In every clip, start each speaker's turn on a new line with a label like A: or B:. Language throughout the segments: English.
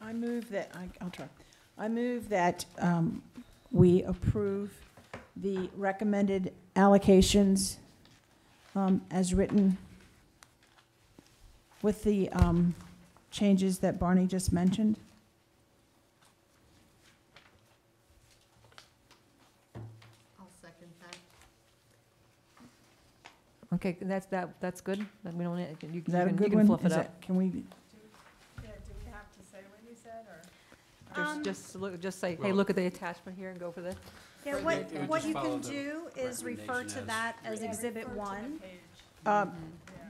A: I move that, I- I'll try. I move that um, we approve the recommended allocations um, as written with the um, changes that Barney just mentioned.
B: I'll second that.
C: Okay, that's, that, that's good, then we don't, you can, you
A: Is that a
C: can you
A: good
C: can
A: one?
C: fluff it
A: Is
C: up.
A: that- Can we,
C: Just, just look, just say, hey, look at the attachment here and go for this.
D: Yeah,
B: Right,
D: what,
B: it would
D: what
B: just
D: you
B: follow
D: can
B: the
D: do is refer to
B: recommendation
D: that
B: as
D: as exhibit one.
A: um,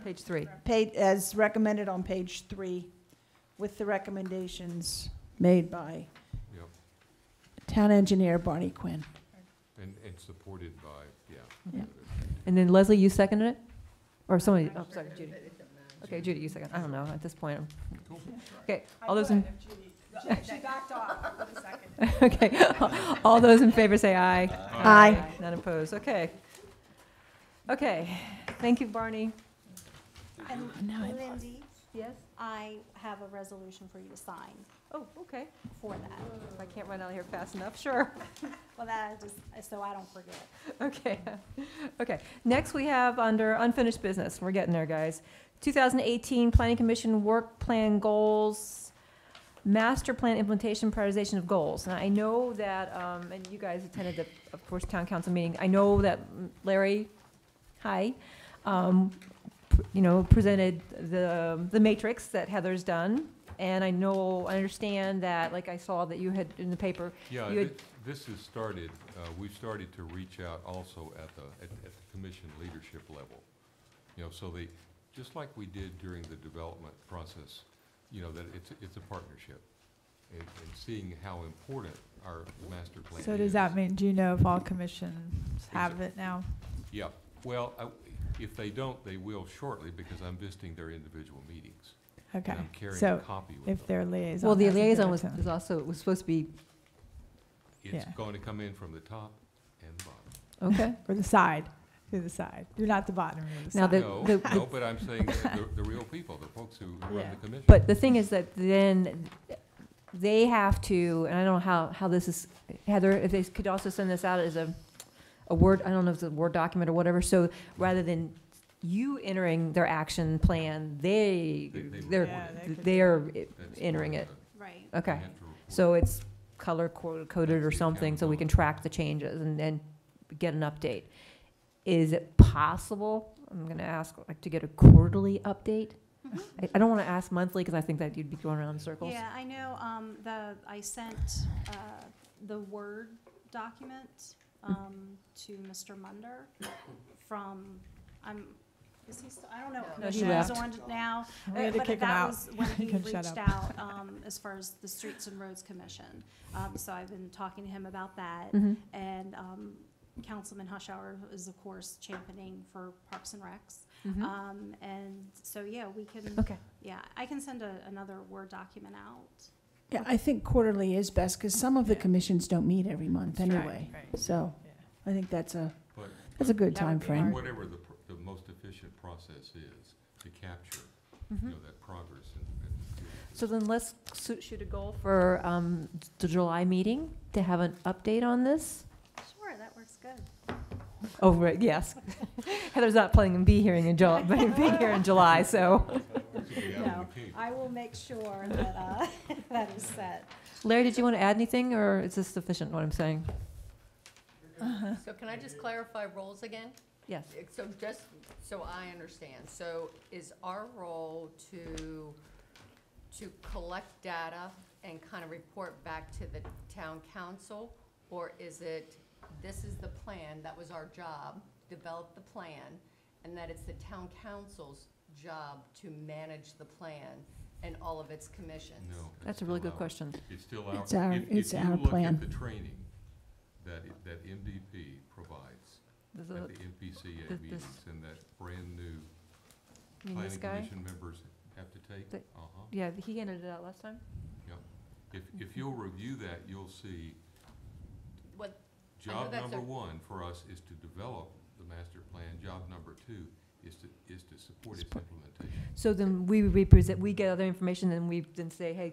C: Page three.
A: paid, as recommended on page three, with the recommendations made by
E: Yep,
A: town engineer Barney Quinn.
E: and, and supported by, yeah.
A: Yeah.
C: And then Leslie, you seconded it? Or somebody, oh, sorry, Judy. Okay, Judy, you second, I don't know, at this point, I'm-
E: Cool.
C: okay, all those in. Okay, all those in favor say aye.
E: Uh,
F: Uh,
A: Aye.
C: None opposed, okay. Okay, thank you, Barney.
D: And
A: Now I-
D: Lindy,
C: Yes?
D: I have a resolution for you to sign
C: Oh, okay,
D: for that.
C: if I can't run out of here fast enough, sure.
D: Well, that I just, so I don't forget.
C: Okay, okay. Next, we have under unfinished business, we're getting there, guys. 2018 Planning Commission Work Plan Goals, Master Plan Implementation Prioritization of Goals. Now, I know that, um, and you guys attended the, of course, Town Council meeting. I know that Larry, hi, um, pr- you know, presented the, the matrix that Heather's done. And I know, I understand that, like I saw that you had in the paper,
E: Yeah,
C: You had-
E: thi- this has started, uh, we've started to reach out also at the, at at the commission leadership level. You know, so they, just like we did during the development process, you know, that it's, it's a partnership. And, and seeing how important our master plan is.
F: So does that mean, do you know if all commissions have it now?
E: Yeah, well, I- if they don't, they will shortly, because I'm visiting their individual meetings.
F: Okay,
E: And I'm carrying a
F: so
E: copy with them.
F: if their liaison.
C: well, the
F: hasn't given
C: liaison
F: it
C: was,
F: to them.
C: was also, was supposed to be
E: It's
F: Yeah.
E: going to come in from the top and the bottom.
C: Okay.
F: Or the side, to the side. You're not the bottom, you're the
C: Now
F: side.
C: the-
E: No, no, but I'm saying the, the real people, the folks who run
F: Yeah.
E: the commission.
C: But the thing is that then they have to, and I don't know how, how this is, Heather, if they could also send this out as a, a Word, I don't know if it's a Word document or whatever, so rather than you entering their action plan, they,
E: They- they
C: they're,
F: Yeah, they could-
C: they're
E: That's
C: entering
E: part
C: it.
E: of the-
D: Right.
E: they
C: Okay,
E: have to report.
C: so it's color co- coded
E: That's
C: or
E: the
C: something, so we can
E: accountability.
C: track the changes and then get an update. Is it possible, I'm gonna ask, like, to get a quarterly update?
D: Mhm.
C: I, I don't wanna ask monthly, because I think that you'd be going around in circles.
D: Yeah, I know, um, the, I sent, uh, the Word document, um, to Mr. Munder from, I'm, is he still, I don't know.
C: No, he
D: Commissioner is
C: left.
D: on now.
F: We had to
D: But
F: kick him
D: that
F: out.
D: was When
F: He
D: he
F: couldn't shut
D: reached
F: up.
D: out, um, as far as the Streets and Roads Commission. Um, so I've been talking to him about that.
F: Mm.
C: Mhm.
D: And, um, Councilman Hushhour is of course championing for Parks and Recs.
F: Mm-hmm.
C: Mhm.
D: Um, and so, yeah, we can,
C: Mm-hmm. Okay,
D: yeah, I can send a, another Word document out.
A: Yeah, I think quarterly is best, because some of the commissions don't meet every month
F: Right,
A: anyway.
F: right.
A: So
F: Yeah.
A: I think that's a,
E: But-
A: that's a good
C: That
A: time
C: would be
A: frame.
E: Whatever the, pr- the most efficient process is to capture,
C: Mm-hmm.
E: you know, that progress and. and-
C: so then let's su- shoot a goal for um, the July meeting to have an update on this?
D: Sure, that works good.
C: Oh, right, yes. Heather's not planning on being here in July, being here in July, so.
E: to be out in the
D: No,
E: community.
D: I will make sure that, uh, that is set.
C: Larry, did you want to add anything, or is this sufficient, what I'm saying?
B: So can I just clarify roles again?
C: Yes.
B: So just, so I understand, so is our role to, to collect data and kind of report back to the town council? Or is it, this is the plan, that was our job, develop the plan, and that it's the town council's job to manage the plan and all of its commissions?
E: No,
C: That's a really
E: still
C: good
E: our-
C: question.
E: It's still
A: It's our-
E: our, if,
A: it's
E: if you
A: our
E: look
A: plan.
E: at the training that, it- that MDP provides
C: There's
E: at
C: a-
E: the NPCA
C: th-
E: meetings
C: this-
E: and that brand-new
C: I mean, this
E: planning
C: guy,
E: commission members have to take,
C: The-
E: uh-huh.
C: yeah, he ended it out last time.
E: If, if you'll review that, you'll see
B: What, I know
E: job
B: that's
E: number
B: a-
E: one for us is to develop the master plan. Job number two is to, is to support its implementation.
C: So then we represent, we get other information, and we then say, hey,